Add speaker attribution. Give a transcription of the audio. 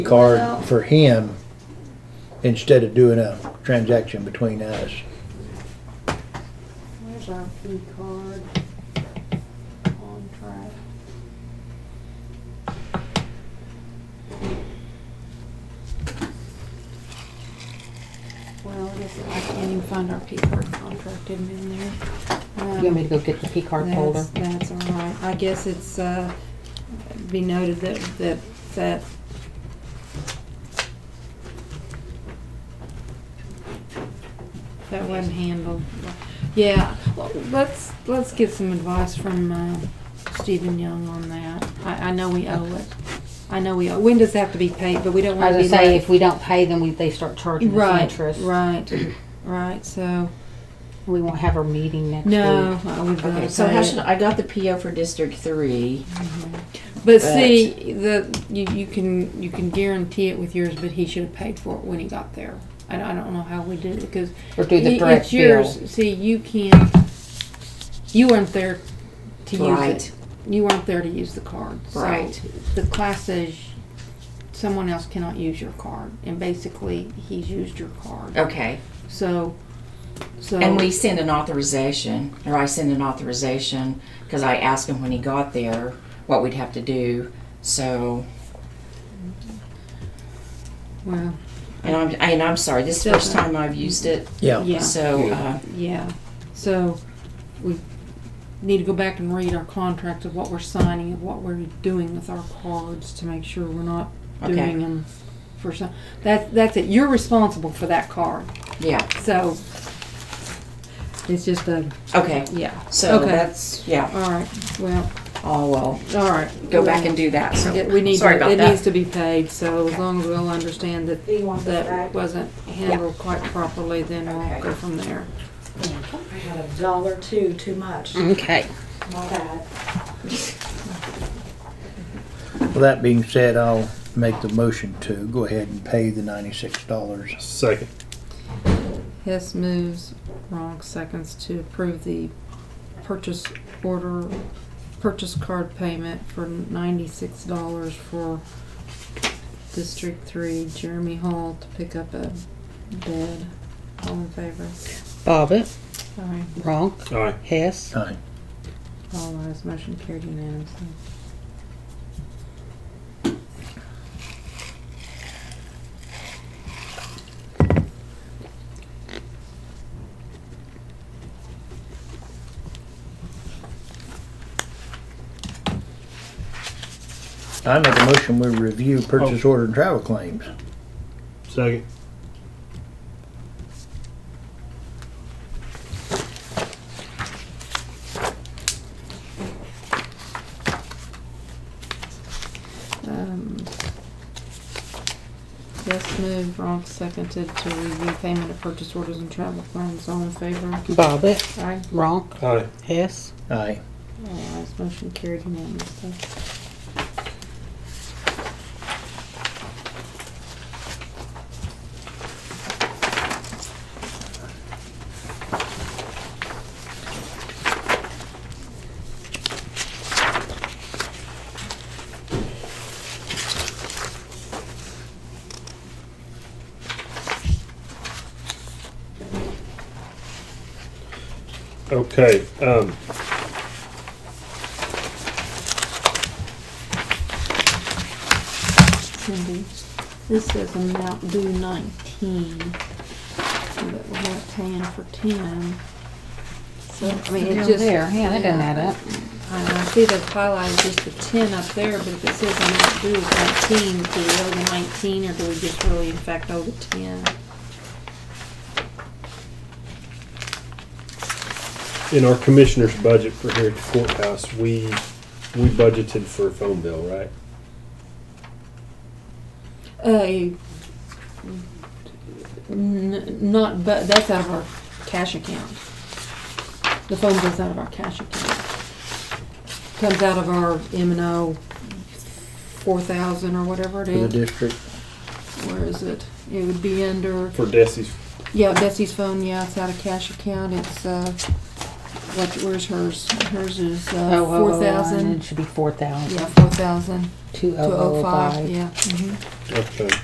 Speaker 1: card for him instead of doing a transaction between us.
Speaker 2: Where's our P card? Contract. Well, I guess I can't even find our P card contract Didn't in there.
Speaker 3: You want me to go get the P card folder?
Speaker 2: That's, that's all right. I guess it's, uh, be noted that, that, that. That wasn't handled. Yeah, well, let's, let's get some advice from, uh, Stephen Young on that. I, I know we owe it. I know we owe, when does it have to be paid, but we don't
Speaker 3: I
Speaker 2: wanna
Speaker 3: was
Speaker 2: be
Speaker 3: gonna say,
Speaker 2: late.
Speaker 3: if we don't pay them, we, they start charging us
Speaker 2: Right,
Speaker 3: interest.
Speaker 2: right, right, so,
Speaker 3: We won't have our meeting next week.
Speaker 2: no, I would.
Speaker 4: Okay,
Speaker 2: not
Speaker 4: Um, so
Speaker 2: pay
Speaker 4: how
Speaker 2: it.
Speaker 4: should, I got the PO for District Three.
Speaker 2: But
Speaker 4: But-
Speaker 2: see, the you, you can you can guarantee it with yours, but he should have paid for it when he got there. I, I don't know how we did it because
Speaker 3: Or do the
Speaker 2: y-
Speaker 3: direct
Speaker 2: it's yours.
Speaker 3: bill.
Speaker 2: See, you can't. You weren't there to use
Speaker 4: Right.
Speaker 2: it. You weren't there to use the card.
Speaker 4: Right.
Speaker 2: So the class says someone else cannot use your card, and basically he's used your card.
Speaker 4: Okay,
Speaker 2: So, so
Speaker 4: and we send an authorization, or I send an authorization, because I asked him when he got there what we'd have to do, so,
Speaker 2: well
Speaker 4: and I'm, and I'm sorry, this is the first time I've used it,
Speaker 1: Yeah,
Speaker 2: Yeah.
Speaker 4: so, uh,
Speaker 2: Yeah, so we need to go back and read our contract of what we're signing, of what we're doing with our cards to make sure we're not
Speaker 4: Okay.
Speaker 2: doing them for some, that, that's it, you're responsible for that card,
Speaker 4: yeah,
Speaker 2: so. It's just a,
Speaker 4: okay.
Speaker 2: yeah,
Speaker 4: So
Speaker 2: Okay.
Speaker 4: that's, yeah,
Speaker 2: alright, well,
Speaker 4: oh, well,
Speaker 2: alright.
Speaker 4: go back and do that, so,
Speaker 2: Yeah, We need,
Speaker 4: sorry
Speaker 2: to-
Speaker 4: about
Speaker 2: it needs to
Speaker 4: that.
Speaker 2: be paid, so as long as we'll understand that
Speaker 5: Do you want this
Speaker 2: that
Speaker 5: back?
Speaker 2: wasn't handled quite properly, then we'll
Speaker 4: Okay.
Speaker 2: go from there.
Speaker 5: I had a dollar two too much.
Speaker 3: Okay.
Speaker 5: My bad.
Speaker 1: with that being said, I'll make the motion to go ahead and pay the ninety-six dollars.
Speaker 6: Second.
Speaker 2: Hess moves, Ronk seconds to approve the purchase order, purchase card payment for ninety-six dollars for District Three, Jeremy Hall to pick up a bed. All in favor?
Speaker 3: Bobbit,
Speaker 2: Aye.
Speaker 3: Ronk,
Speaker 6: Aye.
Speaker 3: Hess.
Speaker 1: Aye.
Speaker 2: All ayes, motion carried unanimously.
Speaker 1: I make a motion, we review purchase order and travel claims.
Speaker 6: Second.
Speaker 2: Um, Hess moved, Ronk seconded to review payment of purchase orders and travel claims. All in favor?
Speaker 3: Bobbit,
Speaker 2: Aye.
Speaker 3: Ronk,
Speaker 6: Aye.
Speaker 3: Hess.
Speaker 1: Aye.
Speaker 2: All ayes, motion carried unanimously.
Speaker 6: Okay, um.
Speaker 2: Cindy, this says amount due nineteen, but we're not paying for ten. So, I mean, it just.
Speaker 3: There, yeah, that doesn't add up.
Speaker 2: I I see they've highlighted just the ten up there, but if it says amount due is nineteen, do we owe the nineteen, or do we just really in fact owe the ten?
Speaker 6: In our commissioner's budget for Heritage Courthouse, we, we budgeted for a phone bill, right?
Speaker 2: Uh, n- not, but, that's out of our cash account. The phone goes out of our cash account. Comes out of our M and O four thousand or whatever it
Speaker 1: For the
Speaker 2: is.
Speaker 1: district,
Speaker 2: Where is it? It would be under,
Speaker 6: For Desi's,
Speaker 2: yeah, Bessie's phone, yeah, it's out of cash account, it's, uh, what, where's hers? Hers is, uh,
Speaker 3: Oh, oh, oh,
Speaker 2: four
Speaker 3: oh, and
Speaker 2: thousand.
Speaker 3: It should be four thousand.
Speaker 2: Yeah, four thousand,
Speaker 3: Two
Speaker 2: two
Speaker 3: oh
Speaker 2: oh
Speaker 3: oh
Speaker 2: five,
Speaker 3: five.
Speaker 2: yeah. mhm.
Speaker 6: Okay.